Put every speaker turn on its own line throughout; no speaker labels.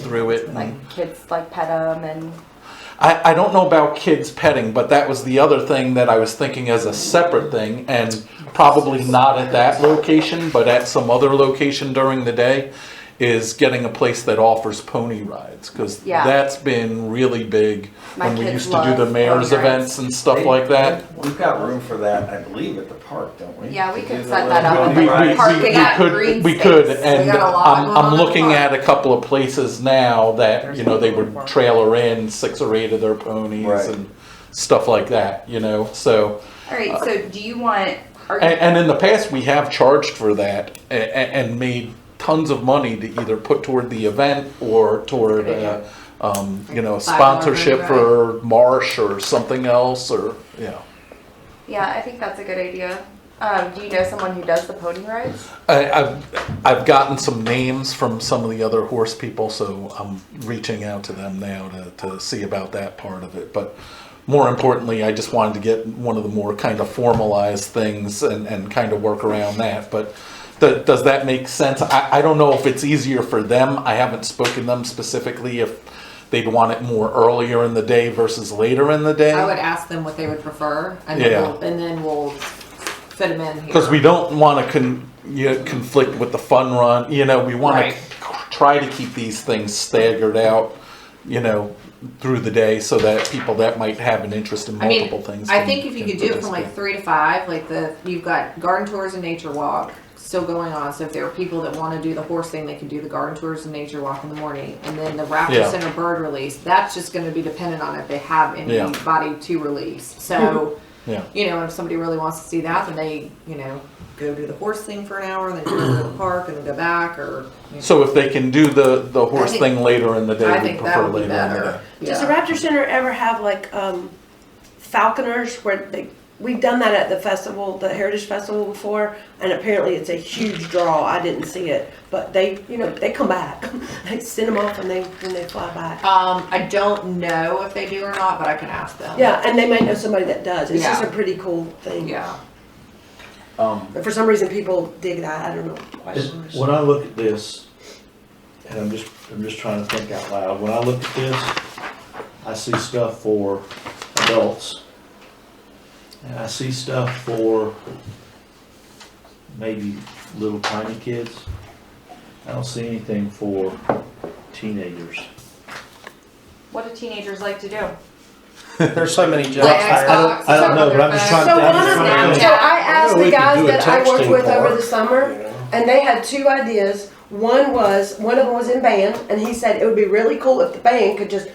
through it. and-
Mm.
Like kids like pet them and
I, I don't know about kids petting, but that was the other thing that I was thinking as a separate thing, and probably not at that location, but at some other location during the day, is getting a place that offers pony rides, because
Yeah.
that's been really big
My
when we
kids
used to do the
love
mayor's
pony rides.
events and stuff like that.
We've got room for that, I believe, at the park, don't we?
Yeah, we
To
could
do the
set that
little
up.
We, we,
rides.
Parking
we, we
lot,
could,
green
we could,
space. We
and
got a lot
I'm,
going on
I'm
in the
looking
park.
at a couple of places now that, you know, they would trailer in six or eight of their ponies
Right.
and stuff like that, you know, so.
all right. So do you want? Are you,
And, and in the past, we have charged for that and, and made tons of money to either put toward the event or toward, uh, um, you know, sponsorship for Marsh or something else or, you know.
yeah, I think that's a good idea. Um, do you know someone who does the pony rides?
I, I've, I've gotten some names from some of the other horse people, so I'm reaching out to them now to, to see about that part of it. But more importantly, I just wanted to get one of the more kind of formalized things and, and kind of work around that. But th- does that make sense? I, I don't know if it's easier for them. I haven't spoken to them specifically if they'd want it more earlier in the day versus later in the
I would
day.
ask them what they would prefer, and then
Yeah.
we'll, and then we'll fit them in here.
Because we don't want to con, you know, conflict with the fun run, you know, we want
Right.
to try to keep these things staggered out, you know, through the day so that people that might have an interest in
I mean,
multiple things.
I
can-
think if you
can
could do it from like
participate.
three to five, like the you've got garden tours and nature walk still going on. So if there are people that want to do the horse thing, they can do the garden tours and nature walk in the morning, and then the raptor
Yeah.
center bird release. That's just going to be dependent on if they have
Yeah.
anybody to release. So.
Yeah,
You know, if somebody really wants to see that, then they, you know, go do the horse thing for an hour, and then go to the park, and then go back, or. You know.
so if they can do the, the horse
think-
thing later in the day,
I
we
think that
prefer
would
later in
be
the
better.
day.
Does the
Yeah.
Raptor Center ever have like um, falconers where they? We've done that at the festival, the Heritage Festival before, and apparently it's a huge draw. I didn't see it, but they, you know, they come back. they send them off and they when they fly back.
Um, I don't know if they do or not, but I can ask them.
Yeah, and they might know somebody that does. It's just
Yeah.
a pretty cool thing.
Yeah.
Um,
But for some reason, people dig that. I don't know. Why
Is-
so much.
When I look at this, and I'm just, I'm just trying to think out loud, when I look at this, I see stuff for adults. And I see stuff for maybe little tiny kids. I don't see anything for teenagers.
What do teenagers like to do?
There's so many
Play
jobs
Xbox.
there.
I don't know, but I'm just trying-
So
I'm
one
just
of
trying
them,
to
so I asked
we
the
could
guys
do a
that I worked
texting
with over
bar.
the summer, and they had two ideas. One was, one of them was in band, and he said it would be really cool if the band could just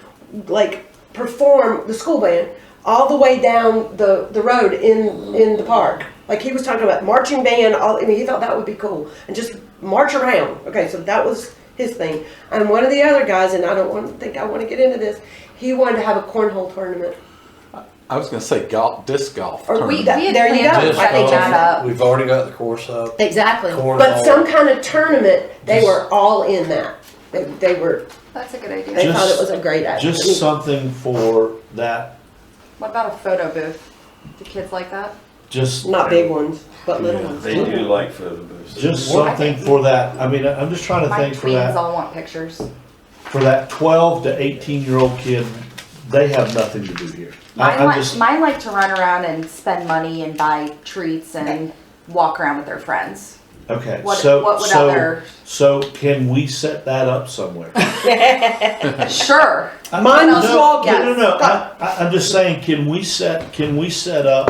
like perform the school band all the way down the, the road in, in the park. Like he was talking about marching band, all, I mean, he thought that would be cool, and just march around. Okay, so that was his thing. And one of the other guys, and I don't want, think I wanna get into this, he wanted to have a cornhole tournament.
I was gonna say golf, disc golf
Or we,
tournament.
That-
there you go.
planned on
Just,
I think
setting
that's-
um,
that up.
We've already got the course up.
Exactly.
Cornhole.
But some kind of tournament, they were all in that. They, they were,
That's a good
they
idea.
Just-
thought it was a great idea.
Just something for that,
What about a photo booth? Do kids like that?
just.
Not big ones, but little ones.
They do like for the booths.
Just
Well, I
something
think-
for that, I mean, I- I'm just trying to
My
think for that.
tweens all want pictures.
for that twelve to eighteen year old kid, they have nothing to do here. I,
Mine
I'm
like,
just,
mine like to run around and spend money and buy treats and walk around with their friends.
okay,
What,
so,
what would
so,
other?
so can we set that up somewhere?
Sure.
I-
Mine
no,
was all
No, no,
guessed.
no, I, I, I'm just saying, can we set, can we set up,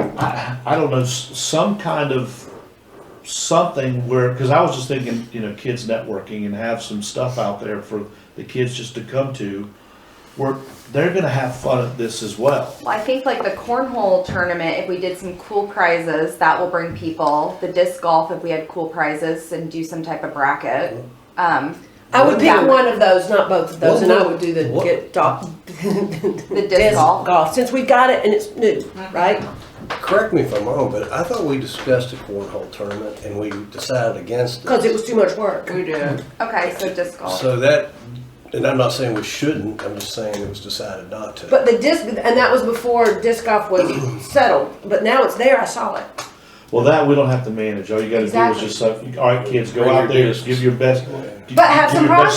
I, I don't know, s- some kind of something where, cause I was just thinking, you know, kids networking and have some stuff out there for the kids just to come to, where they're gonna have fun at this as well.
Well, I think like the cornhole tournament, if we did some cool prizes, that will bring people. The disc golf, if we had cool prizes and do some type of bracket. Um,
I would pick
Yeah.
one of those, not both of those,
What
and I
would-
would do the,
what-
get dog.
the disc golf. Mm-hmm.
Since we got it and it's new, right?
Correct me if I'm wrong, but I thought we discussed a cornhole tournament and we decided against it.
Cause it was too much work.
We do.
Okay, so disc golf.
So that, and I'm not saying we shouldn't, I'm just saying it was decided not to.
But the disc, and that was before disc golf was settled, but now it's there, I saw it.
Well, that we don't have to manage. All you gotta do is
Exactly.
just, say, all right, kids, go
Bring
out
your
there,
discs."
give your best.
But have
give
some
your best